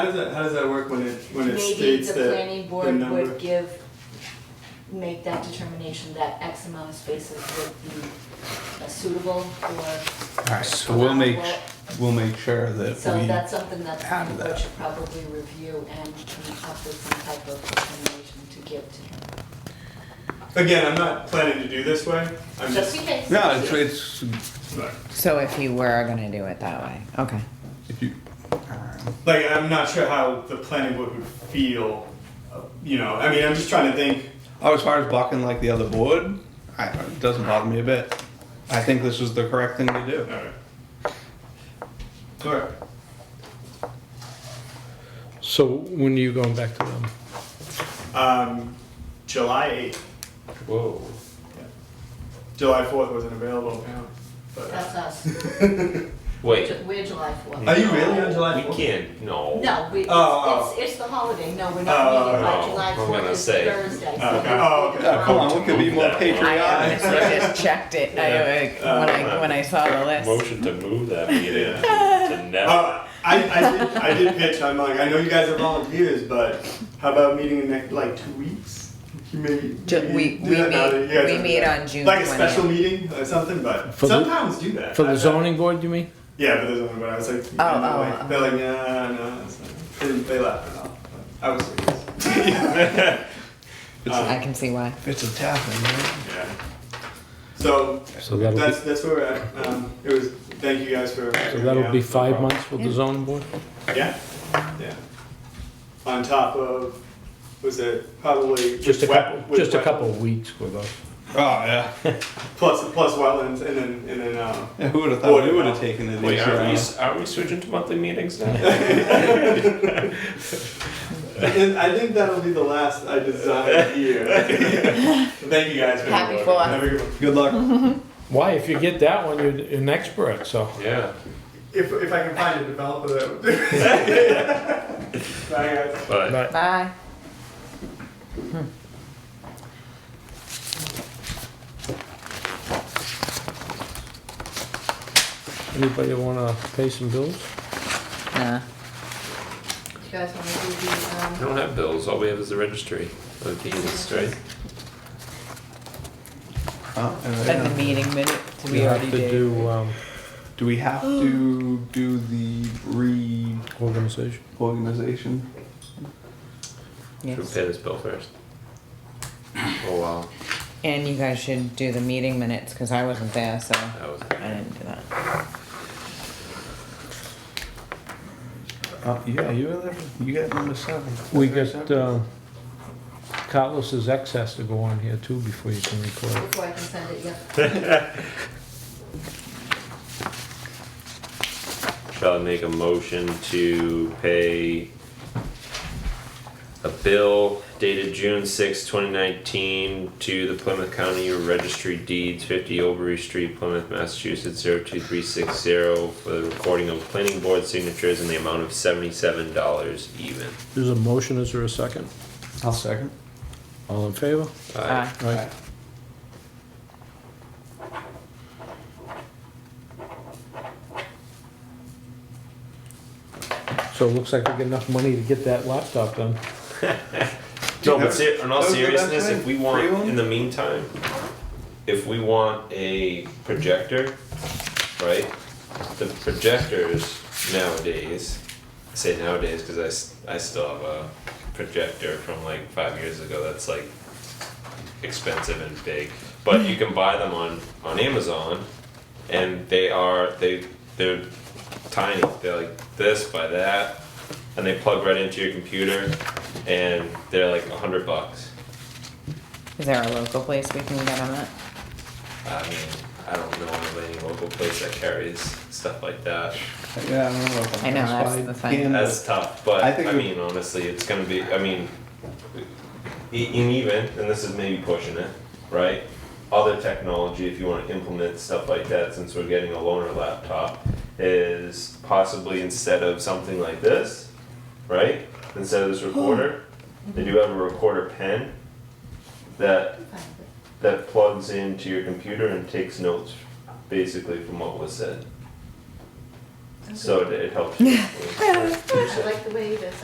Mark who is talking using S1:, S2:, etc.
S1: How does that, how does that work when it, when it
S2: Maybe
S1: states
S2: the
S1: that?
S2: planning board
S1: number-
S2: would give, make that determination that X amount of spaces would be uh, suitable or,
S3: Alright, so we'll make, we'll make sure that
S2: so
S3: we,
S2: that's something that the
S3: Add
S2: planning board
S3: that.
S2: should probably review and come up with some type of determination to give to him.
S1: Again, I'm not planning to do this way, I'm just,
S2: Just in case.
S3: no, it's, it's,
S1: but-
S4: So if you were gonna do it that way, okay.
S3: if you, alright.
S1: like, I'm not sure how the planning board would feel, uh, you know, I mean, I'm just trying to think,
S3: Oh, as far as blocking like the other board, I, it doesn't bother me a bit. I think this is the correct thing to do.
S1: alright. Alright,
S5: So when are you going back to them?
S1: um, July eighth,
S3: Whoa.
S1: July fourth wasn't available, apparently, but. uh,
S2: That's us.
S6: Wait.
S2: We're July fourth.
S1: Are you really on July
S6: We
S1: fourth?
S6: can't, no.
S2: No, we,
S1: Oh,
S2: it's, it's the holiday, no, we're
S1: Oh,
S2: not meeting by
S6: oh,
S2: July
S6: I'm
S2: fourth,
S6: gonna
S2: it's
S6: say.
S2: Thursday. so
S1: Okay. Oh, okay.
S3: Yeah, come on, we could be more
S4: I
S3: patriotic.
S4: honestly just checked it, I, like, when I, when I saw the list.
S6: Motion to move that meeting to never.
S1: Uh, I, I did, I did pitch, I'm like, I know you guys are volunteers, but how about meeting in next, like, two weeks? You Maybe,
S4: Ju-
S1: maybe
S4: we-
S1: do
S4: we
S1: that now
S4: meet-
S1: that you guys
S4: we
S1: are-
S4: meet on June
S1: Like a special
S4: 20th.
S1: meeting or something, but
S5: For the-
S1: some towns do that.
S5: For the
S1: I've-
S5: zoning board, you mean?
S1: Yeah, for the zoning, but I was like,
S4: Oh,
S1: and they're
S4: oh,
S1: like-
S4: oh.
S1: they're like, nah, nah, that's not- they, they laughed it off. but I was serious.
S4: I can see why.
S3: It's a tapping, right?
S1: Yeah. So,
S5: So that'll
S1: that's,
S5: be,
S1: that's where we're at, um, it was, thank you guys for.
S5: so that'll be
S1: Yeah.
S5: five months with the
S4: Yeah.
S5: zoning board?
S1: Yeah, yeah. On top of, was it probably
S5: Just a
S1: with wet-
S5: couple,
S1: with
S5: just a
S1: wet-
S5: couple of weeks with us.
S3: Oh, yeah.
S1: plus plus wetlands and then and then um,
S3: yeah who would have thought we would have taken it
S6: Wait, are
S3: easy?
S6: we, s- are we switching to monthly meetings now?
S1: and I think that'll be the last I design here. Thank you guys. For
S4: Happy
S1: voting.
S4: for us.
S1: Have a good one.
S3: Good luck. Uh,
S5: Why, if you get that one, you're an expert, so.
S6: Yeah,
S1: If if I can find a developer that would do it. Bye guys.
S6: but
S5: But
S4: Bye.
S5: anybody wanna pay some bills?
S4: Nah.
S2: You guys wanna do the, um,
S6: I don't have bills, all we have is the registry of deeds, right?
S3: Uh, and
S4: And the
S3: then-
S4: meeting minutes we
S5: have
S4: already
S5: to
S4: did.
S5: do, um,
S3: Do we have to do the
S5: organization.
S3: reorganization?
S6: Should we
S4: Yes.
S6: pay this bill first? Oh, wow,
S4: And you guys should do the meeting minutes, cause I wasn't there, so
S6: that was,
S4: I didn't do that.
S3: Uh, yeah, you were there, you got number seven.
S5: We got,
S3: uh,
S5: um, Carlos's ex has to go on here too before you can record.
S2: before I can send it, yeah.
S6: shall I make a motion to pay a bill dated June sixth, twenty nineteen, to the Plymouth County Registry Deeds, fifty Oberry Street, Plymouth, Massachusetts, zero two three six zero, for the recording of planning board signatures in the amount of seventy-seven dollars even.
S5: There's a motion, is there a second?
S3: I'll second.
S5: All in favor?
S6: Aye.
S4: Aye.
S5: Right. So it looks like we got enough money to get that laptop done.
S6: No, but ser- in all
S3: that was the best
S6: seriousness, if
S3: thing.
S6: we
S3: Free
S6: want,
S3: one?
S6: in the meantime, if we want a projector, right? The projectors nowadays, I say nowadays because I, s- I still have a projector from like five years ago that's like expensive and big. But you can buy them on, on Amazon and they are, they, they're tiny. They're like this by that, and they plug right into your computer, and they're like a hundred bucks.
S4: Is there a local place we can get on that?
S6: I mean, I don't know of any local place that carries stuff like that.
S3: Yeah, I don't know. if I'm
S4: I know, that's
S3: satisfied.
S4: the thing.
S3: And-
S6: That's tough, but
S3: I
S6: I,
S3: think we-
S6: mean, honestly, it's gonna be. I mean, e- and even, and this is maybe pushing it, right? Other technology, if you want to implement stuff like that, since we're getting a loaner laptop, is possibly instead of something like this, right? Instead of this recorder, they do have a recorder pen that that plugs into your computer and takes notes, basically from what was said.
S7: so it, it helps. you.
S6: I like the way this.